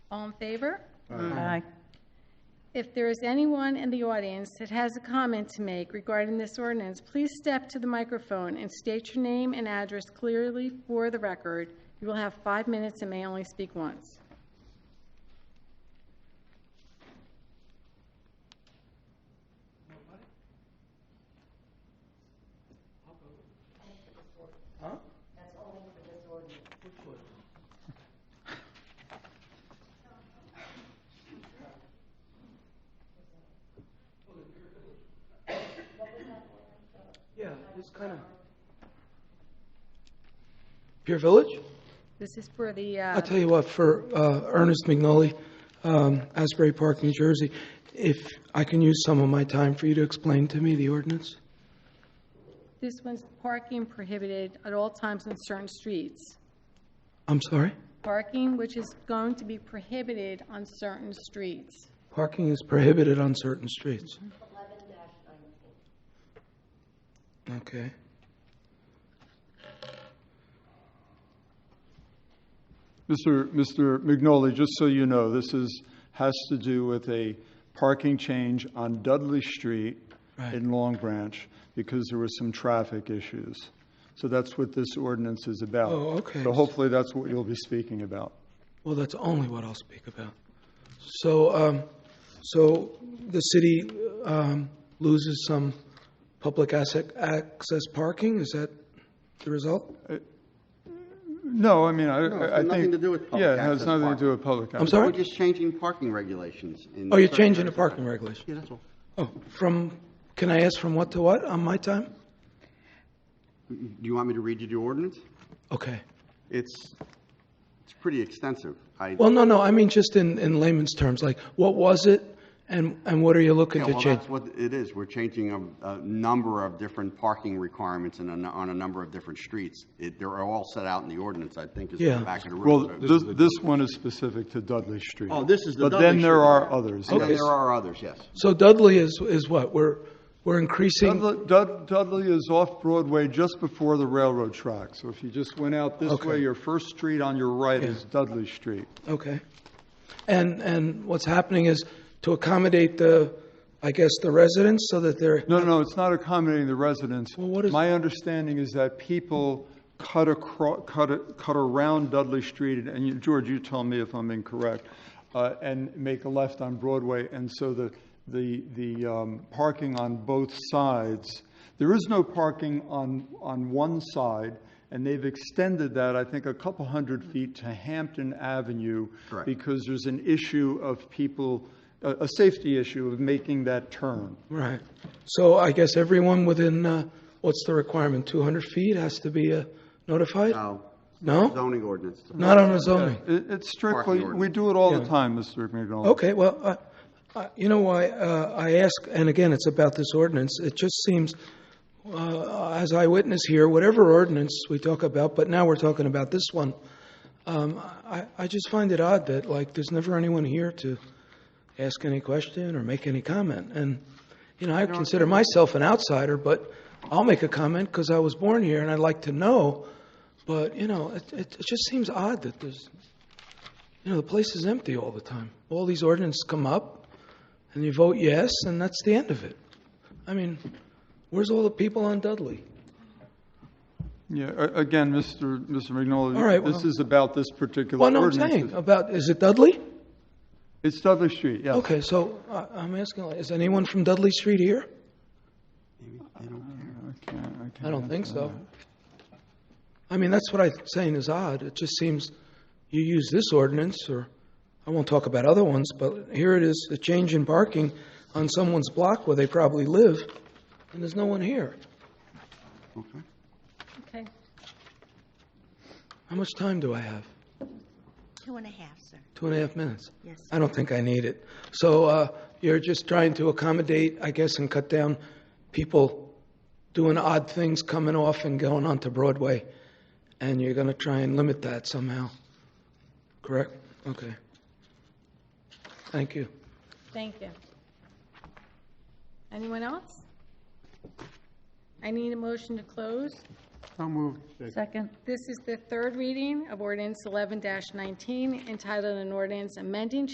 in favor? Aye. If there is anyone in the audience that has a comment to make regarding this ordinance, please step to the microphone and state your name and address clearly for the record. You will have five minutes and may only speak once. Yeah, it's kind of. Pure Village? This is for the, I'll uh, tell you what, for uh, Ernest McNully, um, Asbury Park, New Jersey, if I can use some of my time for you to explain to me the ordinance? this one's parking prohibited at all times on certain streets. I'm sorry? Parking which is going to be prohibited on certain streets. Parking is prohibited on certain streets. Okay. Mr. Mr. McNolly, just so you know, this is, has to do with a parking change on Dudley Street Right. in Long Branch because there were some traffic issues. So that's what this ordinance is about. Oh, okay. So hopefully that's what you'll be speaking about. Well, that's only what I'll speak about. So, um, so the city, um, loses some public asset, access parking, is that the result? No, I mean, I, No, it's I I got think. nothing to do with public Yeah, it has access nothing to parking. do with public. I'm access. We're sorry? just changing parking regulations. in Oh, you're certain changing the areas. parking regulation? Yeah, that's all. Oh, from, can I ask from what to what on my time? Do you want me to read you the ordinance? Okay. It's, it's pretty extensive. I, Well, no, no, I mean just in, in layman's terms, like what was it and, and what are you looking Yeah, to well, change? that's what it is. We're changing a, a number of different parking requirements in a n on a number of different streets. It, they're all set out in the ordinance, I think, is in Yeah. the back of the Well, room. this, this one is specific to Dudley Street. Oh, this is the But Dudley then there Street. are others. And yes. then there are others, yes. So Dudley is, is what? We're, we're increasing, Dudley, Dud- Dudley is off Broadway just before the railroad track. So if you just went out this Okay. way, your first street on your right is Dudley Street. okay. And, and what's happening is to accommodate the, I guess, the residents so that they're, No, no, it's not accommodating the residents. Well, what is- My understanding is that people cut across, cut, a- cut around Dudley Street, and- and you, George, you tell me if I'm incorrect, uh, and make a left on Broadway, and so the, the, the um, parking on both sides, there is no parking on, on one side, and they've extended that, I think, a couple hundred feet to Hampton Avenue. Correct. Because there's an issue of people, a, a safety issue of making that turn. right. So I guess everyone within, uh, what's the requirement, 200 feet has to be uh, notified? No, No? zoning ordinance. Not on a zoning? It, it's strictly, Parking we do it all the Yeah. time, Mr. McDonald. Okay, well, uh, uh, you know why uh, I ask, and again, it's about this ordinance. It just seems, uh, as I witness here, whatever ordinance we talk about, but now we're talking about this one. Um, I, I just find it odd that like there's never anyone here to ask any question or make any comment. And you know, I consider myself an outsider, but I'll make a comment because I was born here and I'd like to know. But you know, it, it, it just seems odd that there's you know, the place is empty all the time. All these ordinances come up, and you vote yes, and that's the end of it. I mean, where's all the people on Dudley? Yeah, a- again, Mr. Mr. McNolly. All right, This well- is about this particular Well, no, I'm ordinance. saying uh, about is it Dudley? It's Dudley Street, yes. Okay, so I, I'm asking, like, is anyone from Dudley Street here? Okay, okay. I don't think so. I mean, that's what I'm saying is odd. It just seems you use this ordinance, or I won't talk about other ones, but here it is, a change in parking on someone's block where they probably live, and there's no one here. Okay. Okay, How much time do I have? Two and a half, sir. Two and a half minutes? Yes. I don't think I need it. So uh, you're just trying to accommodate, I guess, and cut down people doing odd things, coming off and going onto Broadway, and you're going to try and limit that somehow, correct? Okay. Thank you. thank you. Anyone else? I need a motion to close. So moved. Second. This is the third reading of ordinance 11-19, entitled an ordinance amending